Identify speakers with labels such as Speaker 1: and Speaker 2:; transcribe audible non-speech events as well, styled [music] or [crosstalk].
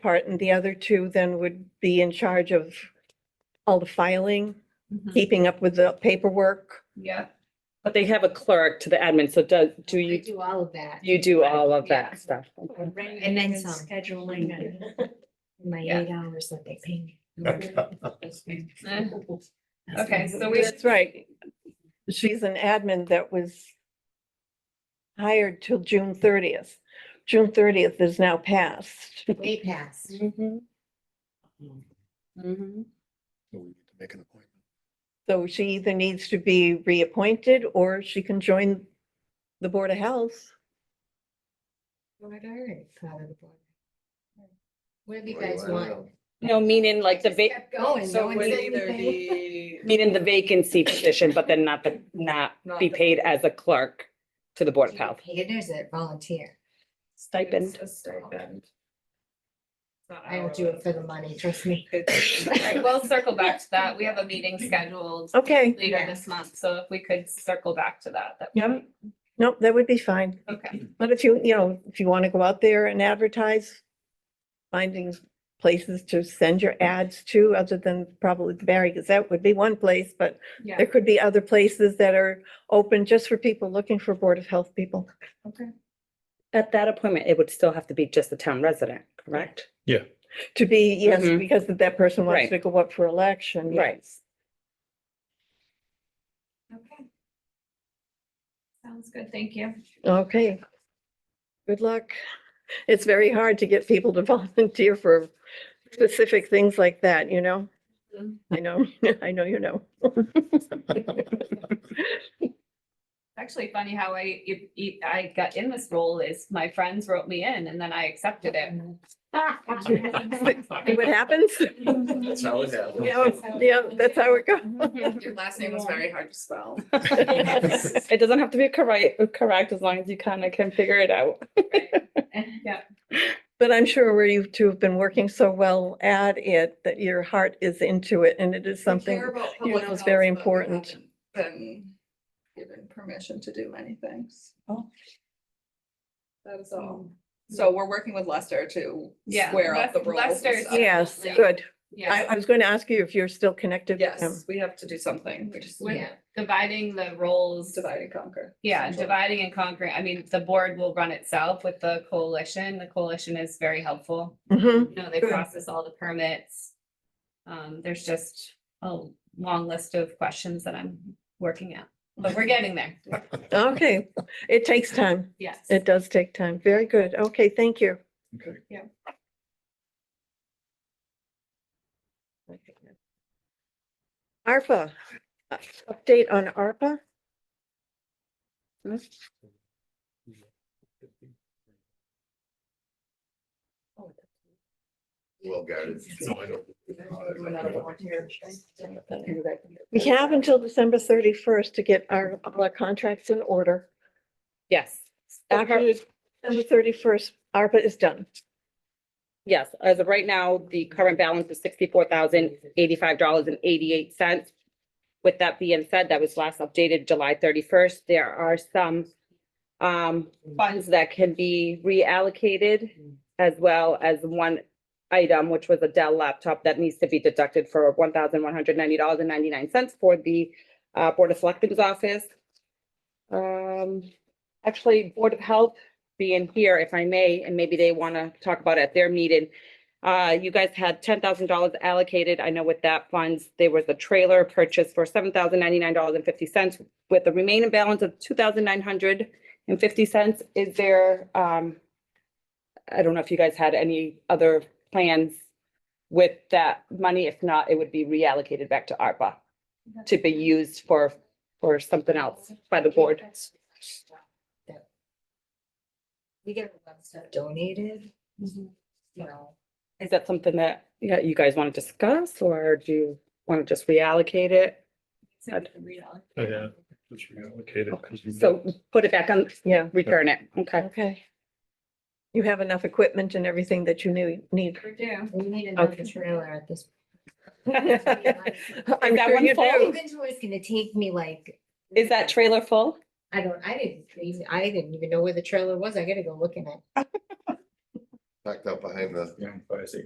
Speaker 1: part and the other two then would be in charge of all the filing,
Speaker 2: Mm-hmm.
Speaker 1: keeping up with the paperwork.
Speaker 2: Yeah.
Speaker 3: But they have a clerk to the admin, so do, do
Speaker 4: We
Speaker 3: you,
Speaker 4: do all of that.
Speaker 3: you do all of
Speaker 2: Yeah.
Speaker 3: that stuff?
Speaker 4: And then some.
Speaker 5: Scheduling and.
Speaker 4: My [laughs]
Speaker 2: Yeah.
Speaker 4: eight hours that they pay me.
Speaker 2: Okay, so we.
Speaker 1: That's right. She's an admin that was hired till June thirtieth. June thirtieth is now past.
Speaker 4: Way past.
Speaker 3: Mm-hmm.
Speaker 6: So we need to make an appointment.
Speaker 1: So she either needs to be reappointed or she can join the Board of Health.
Speaker 4: Well, I'd already thought of the board. Whatever you
Speaker 6: Well,
Speaker 4: guys
Speaker 6: I don't
Speaker 4: want.
Speaker 6: know.
Speaker 3: No, meaning like the va-
Speaker 4: Kept going.
Speaker 2: So
Speaker 4: No
Speaker 2: it
Speaker 4: one
Speaker 2: would
Speaker 4: said
Speaker 2: either
Speaker 4: anything.
Speaker 2: be.
Speaker 3: meaning the vacancy position, but then not the, not
Speaker 2: Not
Speaker 3: be
Speaker 2: the-
Speaker 3: paid as a clerk to the Board of Health.
Speaker 4: Paid or is it volunteer?
Speaker 3: Stipend.
Speaker 2: It's a stipend. It's not
Speaker 4: I will do
Speaker 2: hourly.
Speaker 4: it for the money, trust me.
Speaker 2: It's- all right, We'll circle back to that. We have a meeting scheduled
Speaker 1: Okay,
Speaker 2: later this month, so if we could circle back to that, that. would
Speaker 1: Yep. nope, that would be fine.
Speaker 2: be- Okay,
Speaker 1: But if you, you know, if you want to go out there and advertise, finding places to send your ads to, other than probably the Barry Gazette would be one place, but
Speaker 2: yeah,
Speaker 1: there could be other places that are open just for people looking for Board of Health people.
Speaker 2: okay.
Speaker 3: At that appointment, it would still have to be just the town resident, correct?
Speaker 1: To be, yes,
Speaker 3: Mhm.
Speaker 1: because that person wants
Speaker 3: Right.
Speaker 1: to go up for election. yeah.
Speaker 3: Right.
Speaker 2: Okay. Sounds good, thank you.
Speaker 1: Okay. Good luck. It's very hard to get people to [laughs] volunteer for specific things like that, you know?
Speaker 2: Mhm.
Speaker 3: Mm-hmm.
Speaker 1: I know, [laughs] I know, you know.
Speaker 2: Actually funny how I, if- if I got in this role is my friends wrote me in and then I accepted it.
Speaker 4: [laughs]
Speaker 1: See what happens?
Speaker 6: That's how it happens.
Speaker 1: Yeah, yeah, that's how it goes.
Speaker 2: Your last name was very hard to [laughs] spell. [laughs]
Speaker 3: It doesn't have to be correct, correct, as long as you kind of can figure it out.
Speaker 2: Yeah,
Speaker 1: But I'm sure where you two have been working so well at it, that your heart is into it and it is something. you know is very important.
Speaker 7: Been given permission to do many things.
Speaker 3: Oh.
Speaker 7: That is all. So we're working with Lester to
Speaker 2: Yeah,
Speaker 7: square up the
Speaker 2: Les-
Speaker 7: roles. and
Speaker 2: Lester's-
Speaker 7: stuff.
Speaker 1: Yes,
Speaker 2: Yeah.
Speaker 1: good. I,
Speaker 2: yeah.
Speaker 1: I was going to ask you if you're still connected. with them.
Speaker 7: Yes, we have to do something. We just
Speaker 2: With
Speaker 4: Yeah.
Speaker 2: dividing the roles,
Speaker 7: divide and conquer.
Speaker 2: yeah,
Speaker 7: essentially.
Speaker 2: dividing and conquering. I mean, the board will run itself with the coalition. The coalition is very helpful.
Speaker 1: Mhm.
Speaker 2: You know, they
Speaker 1: Good.
Speaker 2: process all the permits. Um, there's just a long list of questions that I'm working out, but we're getting there.
Speaker 1: Okay, it takes time.
Speaker 2: Yes.
Speaker 1: It does take time. Very good. Okay, thank you.
Speaker 6: Okay.
Speaker 1: ARPA, uh, update on ARPA?
Speaker 6: Well guarded. so I don't- [laughs]
Speaker 1: We have until December thirty-first to get our, all our contracts in order.
Speaker 3: Yes.
Speaker 1: After December thirty-first, ARPA is done.
Speaker 3: Yes, as of right now, the current balance is sixty-four thousand eighty-five dollars and eighty-eight cents. With that being said, that was last updated July thirty-first. There are some um, funds that can be reallocated as well as one item, which was a Dell laptop that needs to be deducted for one thousand one hundred ninety dollars and ninety-nine cents for the uh, Board of Selectmen's office. Um, actually, Board of Health being here, if I may, and maybe they want to talk about it at their meeting. Uh, you guys had ten thousand dollars allocated. I know with that funds, there was a trailer purchase for seven thousand ninety-nine dollars and fifty cents with a remaining balance of two thousand nine hundred and fifty cents. Is there, um, I don't know if you guys had any other plans with that money. If not, it would be reallocated back to ARPA to be used for, for something else by the board.
Speaker 4: We get a lot of stuff donated. You know,
Speaker 3: Is that something that, yeah, you guys want to discuss or do you want to just reallocate it?
Speaker 2: So we can read all of it.
Speaker 6: Yeah, just reallocate it, 'cause we-
Speaker 3: So put it back on,
Speaker 1: Yeah.
Speaker 3: return it. Okay.
Speaker 1: Okay. You have enough equipment and everything that you need, need.
Speaker 2: We do.
Speaker 4: we need another
Speaker 1: Okay.
Speaker 4: trailer at
Speaker 3: [laughs]
Speaker 4: this.
Speaker 1: [laughs] I'm
Speaker 3: Is that
Speaker 1: sure
Speaker 3: one
Speaker 1: you
Speaker 3: full?
Speaker 1: do.
Speaker 4: Inventory is gonna take me like.
Speaker 3: Is that trailer full?
Speaker 4: I don't, I didn't, even- I didn't even know where the trailer was. I gotta go look in it.
Speaker 8: packed out behind the
Speaker 6: Yeah, but I see.